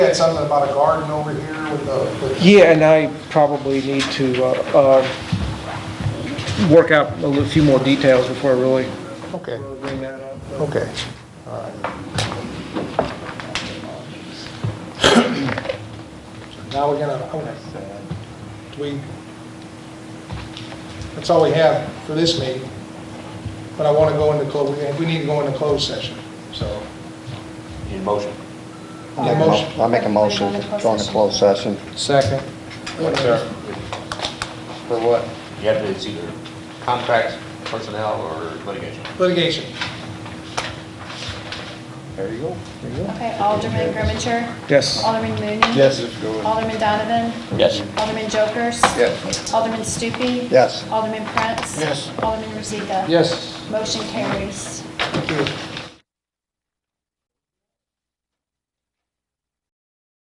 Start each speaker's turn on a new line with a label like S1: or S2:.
S1: had something about a garden over here with the, with-
S2: Yeah, and I probably need to uh, uh, work out a little- few more details before I really
S1: okay,
S2: bring that up.
S1: okay, all right. Now we're gonna, oh, we, that's all we have for this meeting, but I want to go into close, we need to go into closed session, so.
S3: Need a motion?
S1: Yeah, motion.
S4: I make a motion to go into closed session.
S1: Second.
S3: For what? You have to, it's either contracts, personnel, or litigation.
S1: Litigation.
S3: There you go.
S5: Okay, Alderman Grimmonshire?
S2: Yes.
S5: Alderman Mooney? Alderman Donovan?
S3: Yes.
S5: Alderman Jokers?
S4: Yes.
S5: Alderman Stupi?
S4: Yes.
S5: Alderman Prince? Yes. Alderman Rozika?
S1: Yes.
S5: Motion carries.
S1: Thank you.